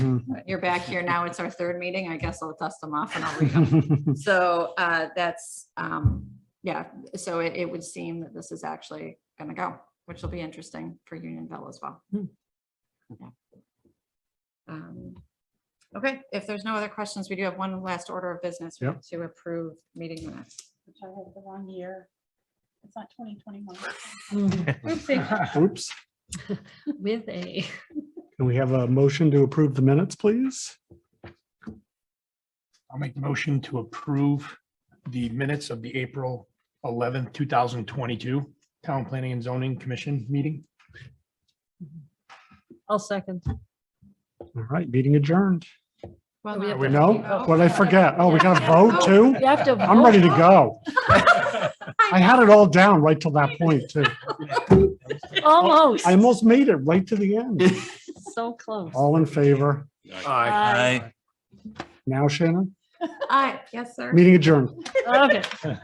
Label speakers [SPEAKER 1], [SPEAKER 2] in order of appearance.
[SPEAKER 1] Mm-hmm.
[SPEAKER 2] You're back here now. It's our third meeting. I guess I'll dust them off and I'll read them. So uh, that's, um, yeah, so it, it would seem that this is actually gonna go, which will be interesting for Unionville as well.
[SPEAKER 3] Hmm.
[SPEAKER 2] Yeah. Um, Okay, if there's no other questions, we do have one last order of business
[SPEAKER 1] Yeah.
[SPEAKER 2] to approve meeting minutes.
[SPEAKER 4] Which I have the wrong year. It's not twenty twenty-one.
[SPEAKER 1] Mm-hmm.
[SPEAKER 4] Oopsie.
[SPEAKER 1] Oops.
[SPEAKER 3] With a,
[SPEAKER 1] Can we have a motion to approve the minutes, please?
[SPEAKER 5] I'll make the motion to approve the minutes of the April eleventh, two thousand twenty-two Town Planning and Zoning Commission meeting.
[SPEAKER 3] I'll second.
[SPEAKER 1] All right, meeting adjourned.
[SPEAKER 2] Well,
[SPEAKER 3] We
[SPEAKER 2] now-
[SPEAKER 3] have
[SPEAKER 1] We
[SPEAKER 3] to-
[SPEAKER 1] know what I forget. Oh, we got to vote too?
[SPEAKER 3] You have to.
[SPEAKER 1] I'm ready to go. I had it all down right till that point too.
[SPEAKER 3] vote. Almost.
[SPEAKER 1] I almost made it right to the end.
[SPEAKER 3] So close.
[SPEAKER 1] All in favor?
[SPEAKER 3] Aye.
[SPEAKER 1] Now Shannon,
[SPEAKER 2] Aye, yes, sir.
[SPEAKER 1] meeting adjourned.
[SPEAKER 3] Okay.